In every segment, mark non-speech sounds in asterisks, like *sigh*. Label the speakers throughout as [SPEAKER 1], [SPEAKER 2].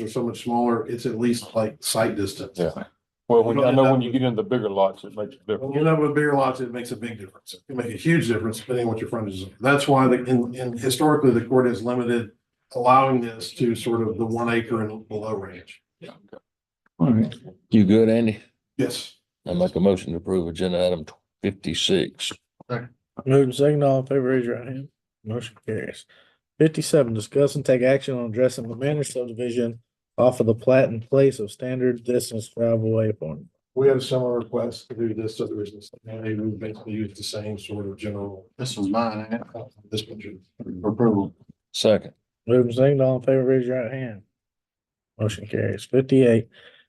[SPEAKER 1] they're so much smaller, it's at least like sight distance.
[SPEAKER 2] Yeah. Well, when, I
[SPEAKER 1] Well,
[SPEAKER 2] know
[SPEAKER 1] that
[SPEAKER 2] when you get into the bigger lots, it makes a difference.
[SPEAKER 1] When you end up with bigger lots, it makes a big difference. It can make a huge difference depending on what your frontage is. That's why the, in, in historically, the court has limited allowing this to sort of the one acre and below range.
[SPEAKER 3] All right. You good, Andy?
[SPEAKER 1] Yes.
[SPEAKER 3] I make a motion to approve agenda item fifty-six.
[SPEAKER 4] Moving second, all in favor, raise your right hand. Motion carries. Fifty-seven, discuss and take action on addressing the Manor subdivision off of the plat in place of standard distance travel waypoint.
[SPEAKER 1] We had a similar request to do this, so there was, and they would basically use the same sort of general,
[SPEAKER 5] This was mine, I
[SPEAKER 1] this picture.
[SPEAKER 5] approval.
[SPEAKER 3] Second,
[SPEAKER 4] Moving second, all in favor, raise your right hand. Motion carries. Fifty-eight,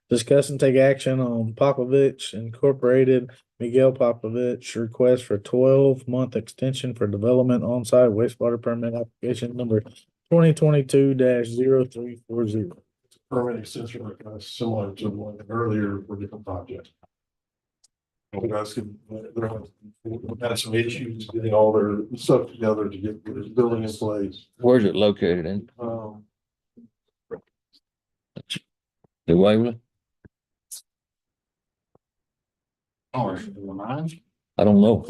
[SPEAKER 4] discuss and take action on Popovich Incorporated, Miguel Popovich request for twelve-month extension for development on-site wastewater permit application number twenty twenty-two 340
[SPEAKER 1] Permit extension request similar to one earlier for different project. You guys can, they're, they've had some issues getting all their stuff together to get their building in place.
[SPEAKER 3] where's it located in?
[SPEAKER 1] Um,
[SPEAKER 3] New Waverly?
[SPEAKER 5] Oh, is it mine?
[SPEAKER 3] I
[SPEAKER 2] *laughs*
[SPEAKER 3] don't know.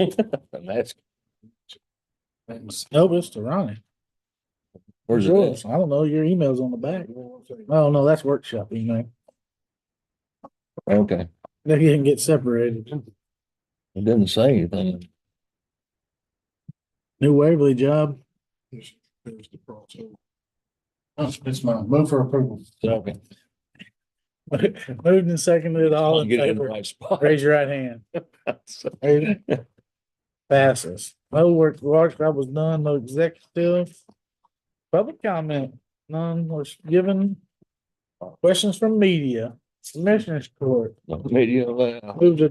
[SPEAKER 3] I'm asking.
[SPEAKER 5] That was-
[SPEAKER 4] Nope, it's to Ronnie.
[SPEAKER 3] Where's it
[SPEAKER 4] Sure.
[SPEAKER 3] at?
[SPEAKER 4] I don't know, your email's on the back. Oh, no, that's workshop email.
[SPEAKER 3] Okay,
[SPEAKER 4] They didn't get separated.
[SPEAKER 3] it doesn't say anything.
[SPEAKER 4] New Waverly job. *laughs*
[SPEAKER 1] there's- there's the crossover.
[SPEAKER 5] That's, it's mine. Move for approval.
[SPEAKER 2] Mm-hmm.
[SPEAKER 3] Okay.
[SPEAKER 4] Moved and seconded, all in
[SPEAKER 3] Get it in the
[SPEAKER 4] favor.
[SPEAKER 3] right spot. *laughs*
[SPEAKER 4] Raise your right hand. Raise it. Passes. No work, workshop was done, no executive. Public comment, none was given. Questions from media, commissioners court,
[SPEAKER 3] Media allowed.
[SPEAKER 4] moved to